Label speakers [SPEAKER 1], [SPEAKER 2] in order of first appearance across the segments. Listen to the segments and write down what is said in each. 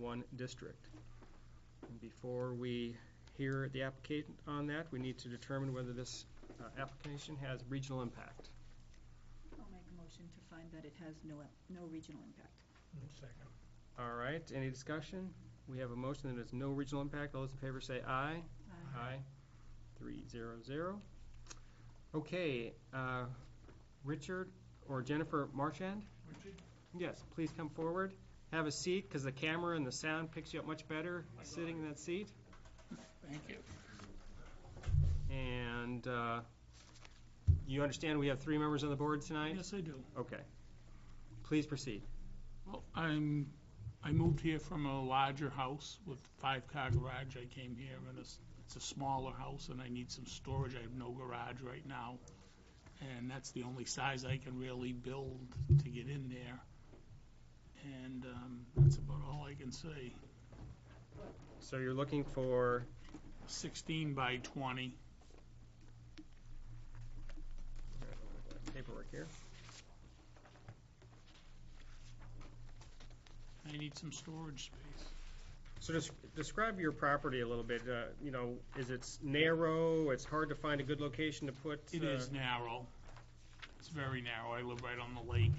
[SPEAKER 1] one district. And Before we hear the application on that, we need to determine whether this uh, application has regional impact.
[SPEAKER 2] I'll make a motion to find that it has no, ep- no regional impact.
[SPEAKER 3] Second.
[SPEAKER 1] All right, any discussion? We have a motion that has no regional impact. All those in favor say aye.
[SPEAKER 2] Aye.
[SPEAKER 1] Aye. Three zero zero. Okay, uh, Richard or Jennifer Marchand?
[SPEAKER 3] Richard?
[SPEAKER 1] Yes, please come forward. Have a seat, because the camera and the sound picks you up much better sitting in that seat.
[SPEAKER 3] Thank you.
[SPEAKER 1] And uh, you understand we have three members on the board tonight?
[SPEAKER 3] Yes, I do.
[SPEAKER 1] Okay. Please proceed.
[SPEAKER 3] Well, I'm, I moved here from a larger house with five-car garage. I came here and it's, it's a smaller house and I need some storage. I have no garage right now. And that's the only size I can really build to get in there. And, um, that's about all I can say.
[SPEAKER 1] So you're looking for,
[SPEAKER 3] Sixteen by twenty.
[SPEAKER 1] paperwork here.
[SPEAKER 3] I need some storage space.
[SPEAKER 1] So just describe your property a little bit. Uh, You know, is it narrow? It's hard to find a good location to put?
[SPEAKER 3] It
[SPEAKER 1] uh,
[SPEAKER 3] is narrow. It's very narrow. I live right on the lake.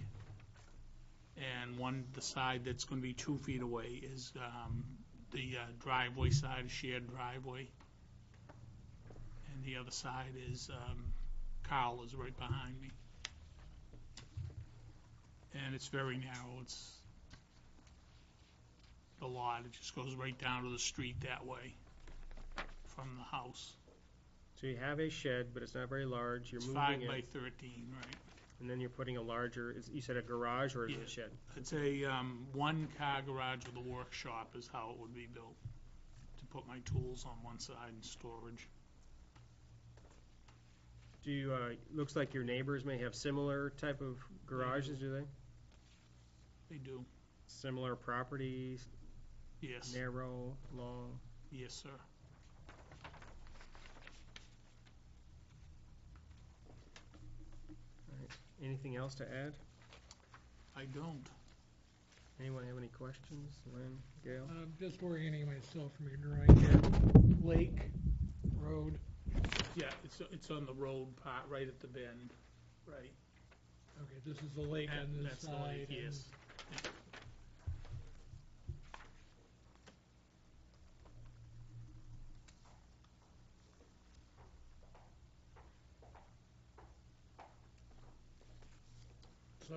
[SPEAKER 3] And one, the side that's going to be two feet away is um, the uh, driveway side, shared driveway. And the other side is, um, Carl is right behind me. And it's very narrow. It's a lot. It just goes right down to the street that way from the house.
[SPEAKER 1] So you have a shed, but it's not very large. You're
[SPEAKER 3] It's
[SPEAKER 1] moving
[SPEAKER 3] five
[SPEAKER 1] it,
[SPEAKER 3] by 13, right?
[SPEAKER 1] and then you're putting a larger, is- you said a garage or is it
[SPEAKER 3] Yeah.
[SPEAKER 1] a shed?
[SPEAKER 3] It's a um, one-car garage with a workshop is how it would be built, to put my tools on one side and storage.
[SPEAKER 1] Do you, uh, looks like your neighbors may have similar type of garages,
[SPEAKER 3] Mm-hmm.
[SPEAKER 1] do they?
[SPEAKER 3] They do,
[SPEAKER 1] Similar properties,
[SPEAKER 3] yes,
[SPEAKER 1] narrow, long?
[SPEAKER 3] yes, sir.
[SPEAKER 1] Anything else to add?
[SPEAKER 3] I don't.
[SPEAKER 1] Anyone have any questions? Lynn, Gail?
[SPEAKER 4] I'm just orienting myself from your drawing here. Lake, road,
[SPEAKER 3] Yeah, it's, it's on the road part, right at the bend, right.
[SPEAKER 4] okay, this is the lake
[SPEAKER 3] That-
[SPEAKER 4] on this
[SPEAKER 3] That's the lake,
[SPEAKER 4] side. and-
[SPEAKER 3] yes.
[SPEAKER 4] So,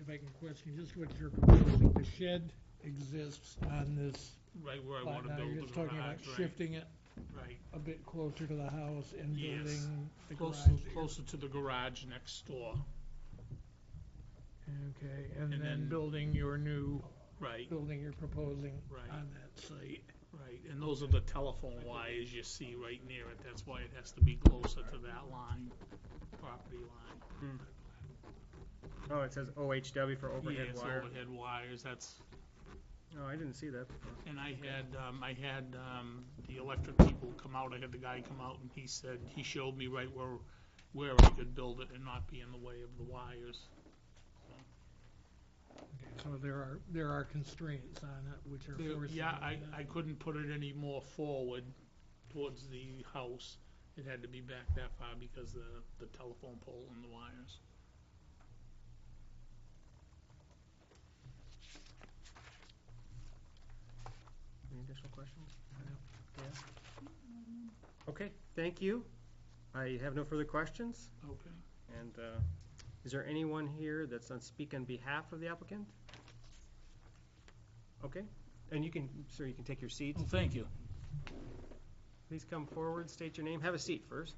[SPEAKER 4] if I can question, just what you're proposing, the shed exists on this
[SPEAKER 3] Right where I
[SPEAKER 4] lot
[SPEAKER 3] want to
[SPEAKER 4] now,
[SPEAKER 3] build
[SPEAKER 4] you're
[SPEAKER 3] the
[SPEAKER 4] just talking about
[SPEAKER 3] garage, right,
[SPEAKER 4] shifting it
[SPEAKER 3] right.
[SPEAKER 4] a bit closer to the house and
[SPEAKER 3] Yes.
[SPEAKER 4] building the garage
[SPEAKER 3] Closer,
[SPEAKER 4] here.
[SPEAKER 3] closer to the garage next door,
[SPEAKER 4] Okay,
[SPEAKER 3] and
[SPEAKER 4] and
[SPEAKER 3] then-
[SPEAKER 4] then building your new,
[SPEAKER 3] right,
[SPEAKER 4] building you're proposing
[SPEAKER 3] Right.
[SPEAKER 4] on that site.
[SPEAKER 3] right. And those are the telephone wires you see right near it, that's why it has to be closer to that line, property line.
[SPEAKER 1] Oh, it says OHW for overhead
[SPEAKER 3] Yes,
[SPEAKER 1] wire.
[SPEAKER 3] overhead wires, that's,
[SPEAKER 1] Oh, I didn't see that. before.
[SPEAKER 3] and I had, um, I had, um, the electric people come out, I had the guy come out and he said, he showed me right where, where I could build it and not be in the way of the wires.
[SPEAKER 4] Okay, So there are, there are constraints on it which are
[SPEAKER 3] There-
[SPEAKER 4] forcing.
[SPEAKER 3] Yeah, I,
[SPEAKER 4] you to-
[SPEAKER 3] I couldn't put it any more forward towards the house. It had to be back that far because the, the telephone pole and the wires.
[SPEAKER 1] Any additional questions? Gail? Okay, thank you. I have no further questions.
[SPEAKER 3] Okay.
[SPEAKER 1] And uh, is there anyone here that's on speak on behalf of the applicant? Okay, and you can, sir, you can take your seat.
[SPEAKER 3] Well, thank you.
[SPEAKER 1] Please come forward, state your name, have a seat first.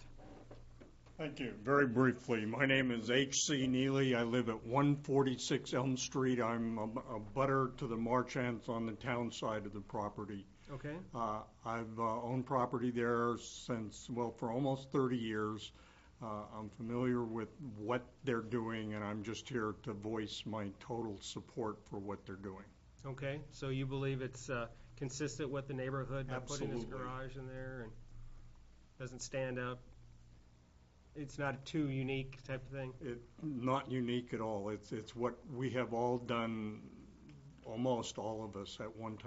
[SPEAKER 5] Thank you. Very briefly, my name is H.C. Neely. I live at 146 Elm Street. I'm a a butter to the Marchands on the town side of the property.
[SPEAKER 1] Okay,
[SPEAKER 5] Uh, I've uh, owned property there since, well, for almost 30 years. Uh, I'm familiar with what they're doing, and I'm just here to voice my total support for what they're doing.
[SPEAKER 1] okay, so you believe it's uh, consistent with the neighborhood by putting this
[SPEAKER 5] Absolutely.
[SPEAKER 1] garage in there and doesn't stand out? It's not too unique type of thing?
[SPEAKER 5] It, not unique at all. It's, it's what we have all done, almost all of us at one time